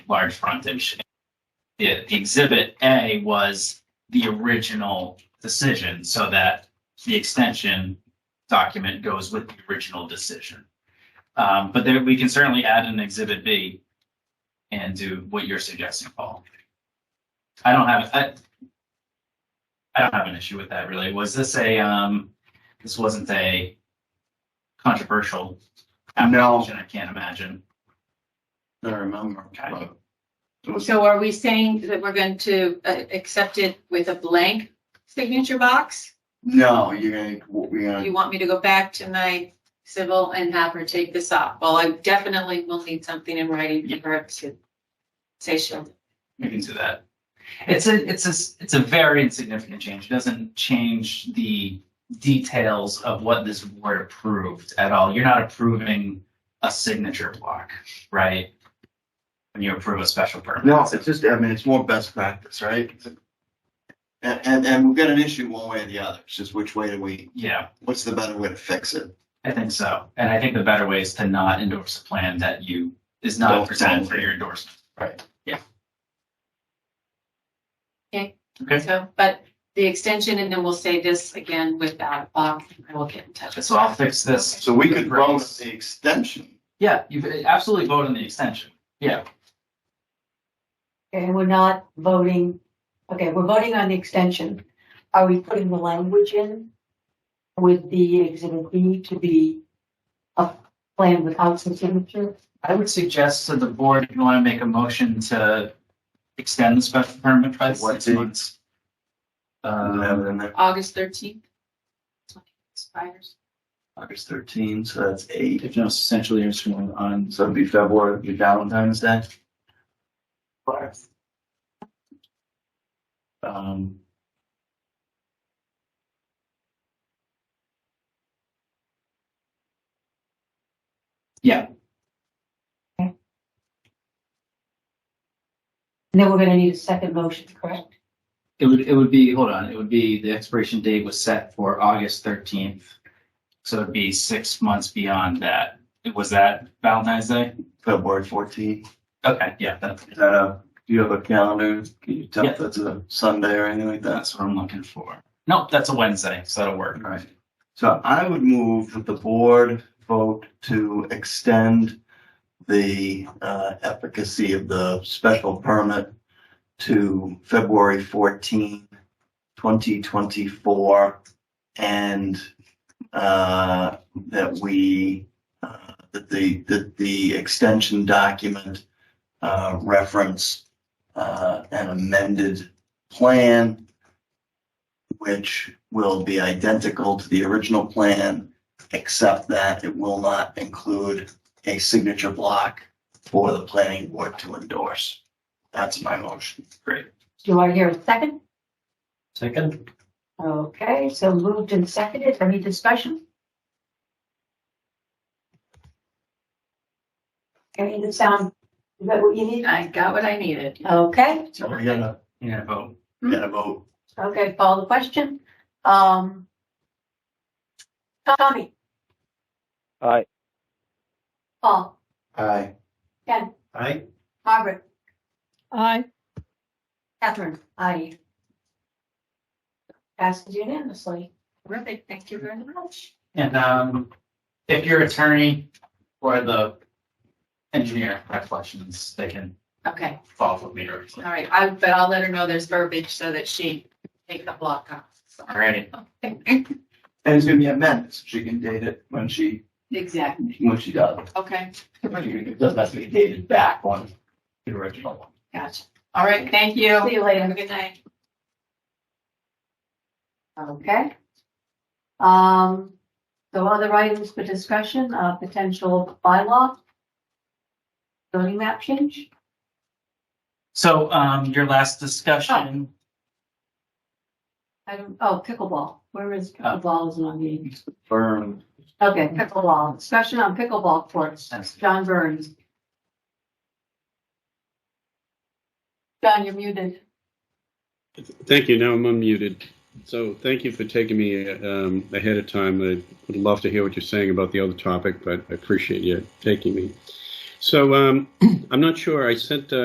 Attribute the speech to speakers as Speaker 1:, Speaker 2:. Speaker 1: large frontage. The the exhibit A was the original decision, so that the extension document goes with the original decision. Um, but there, we can certainly add an exhibit B and do what you're suggesting, Paul. I don't have, I, I don't have an issue with that really. Was this a, um, this wasn't a controversial
Speaker 2: No.
Speaker 1: application, I can't imagine.
Speaker 2: I remember.
Speaker 1: Okay.
Speaker 2: but It was,
Speaker 3: So are we saying that we're going to uh, accept it with a blank signature box?
Speaker 2: no, you're gonna, what we
Speaker 3: You
Speaker 2: gonna,
Speaker 3: want me to go back to my civil and have her take this off? Well, I definitely will need something in writing for her to say she'll.
Speaker 1: We can do that. It's a, it's a, it's a very insignificant change. It doesn't change the details of what this board approved at all. You're not approving a signature block, right? When you approve a special permit.
Speaker 2: no, it's just, I mean, it's more best practice, right? And, and, and we've got an issue one way or the other. It's just which way do we,
Speaker 1: Yeah,
Speaker 2: what's the better way to fix it?
Speaker 1: I think so. And I think the better way is to not endorse a plan that you, is not
Speaker 2: Well,
Speaker 1: presented for
Speaker 2: totally.
Speaker 1: your endorsement.
Speaker 2: Right.
Speaker 1: Okay,
Speaker 3: So, but the extension and then we'll say this again with that box and I will get in touch. with
Speaker 1: so I'll fix this.
Speaker 2: So we could run with the extension.
Speaker 1: Yeah, you absolutely vote on the extension. Yeah,
Speaker 4: And we're not voting, okay, we're voting on the extension. Are we putting the language in with the exhibit B to be a plan without some signature?
Speaker 1: I would suggest to the board, if you want to make a motion to extend the special permit by
Speaker 2: What
Speaker 1: six
Speaker 2: date?
Speaker 1: months.
Speaker 2: And
Speaker 1: Uh,
Speaker 2: then in there,
Speaker 3: August thirteenth. Expires.
Speaker 2: August thirteen, so that's eight.
Speaker 1: if no essential years from on
Speaker 2: So it'd be February, it'd be Valentine's.
Speaker 1: Valentine's Day. Um. Yeah,
Speaker 4: And then we're gonna need a second motion, correct?
Speaker 5: It would, it would be, hold on, it would be, the expiration date was set for August thirteenth.
Speaker 1: so it'd be six months beyond that. Was that Valentine's Day?
Speaker 2: February fourteen.
Speaker 1: Okay, yeah, that,
Speaker 2: Is that a, do you have a calendar? Can you tell
Speaker 1: Yeah.
Speaker 2: if that's a Sunday or anything like that?
Speaker 1: that's what I'm looking for. Nope, that's a Wednesday, so that'll work.
Speaker 2: Right. So I would move that the board vote to extend the uh, efficacy of the special permit to February 14, 2024, and uh, that we, uh, that the, that the extension document uh, reference uh, an amended plan which will be identical to the original plan, except that it will not include a signature block for the planning board to endorse. That's my motion.
Speaker 1: Great.
Speaker 4: Do I hear a second?
Speaker 5: Second?
Speaker 4: Okay, so moved and seconded. Any discussion? Any of the sound, is that what you need?
Speaker 3: I got what I needed.
Speaker 4: Uh, Okay,
Speaker 2: So we're gonna,
Speaker 1: Yeah, vote.
Speaker 2: gonna vote.
Speaker 4: okay, follow the question. Um, Tommy,
Speaker 6: Aye.
Speaker 4: Paul,
Speaker 2: Aye.
Speaker 4: Ken,
Speaker 6: Aye.
Speaker 4: Margaret,
Speaker 7: Aye.
Speaker 4: Catherine, aye. Passes unanimously.
Speaker 3: Terrific. Thank you very much.
Speaker 1: And um, if your attorney or the engineer have questions, they can
Speaker 3: Okay.
Speaker 1: follow up with me directly.
Speaker 3: All right, I, but I'll let her know there's verbiage so that she take the block off.
Speaker 1: Alrighty.
Speaker 2: And it's gonna be amended, so she can date it when she,
Speaker 3: Exactly,
Speaker 2: when she does.
Speaker 3: okay,
Speaker 2: It doesn't have to be dated back on the original one.
Speaker 3: gotcha. All right, thank you.
Speaker 4: See you later.
Speaker 3: Have a good night.
Speaker 4: Okay. Um, so other items for discussion, uh, potential bylaw. Zoning map change.
Speaker 1: So um, your last discussion,
Speaker 4: I don't, oh, pickleball. Where is pickleball is on the,
Speaker 2: Firm.
Speaker 4: okay, pickleball. Discussion on pickleball courts.
Speaker 1: That's-
Speaker 4: John Burns. John, you're muted.
Speaker 8: Thank you. Now I'm unmuted. So thank you for taking me um, ahead of time. I would love to hear what you're saying about the other topic, but I appreciate you taking me. So um, I'm not sure. I sent uh,